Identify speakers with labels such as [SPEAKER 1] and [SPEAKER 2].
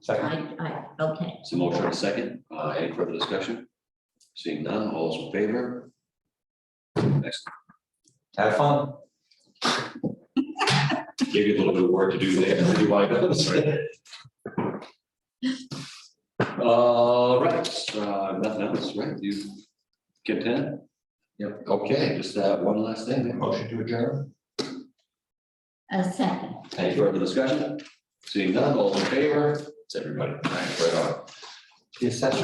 [SPEAKER 1] Second.
[SPEAKER 2] I, I, okay,
[SPEAKER 3] So motion and a second, uh, any further discussion? Seeing none, all those in favor? Next,
[SPEAKER 1] Have fun.
[SPEAKER 3] give you a little bit of work to do there. if you want to go, sorry. All right, uh, nothing else, right, you content? Yep. Okay, just uh one last thing, then.
[SPEAKER 1] Motion to adjourn?
[SPEAKER 2] a second.
[SPEAKER 3] any further discussion? Seeing none, all in favor, it's everybody, All right, right on.
[SPEAKER 1] The assessor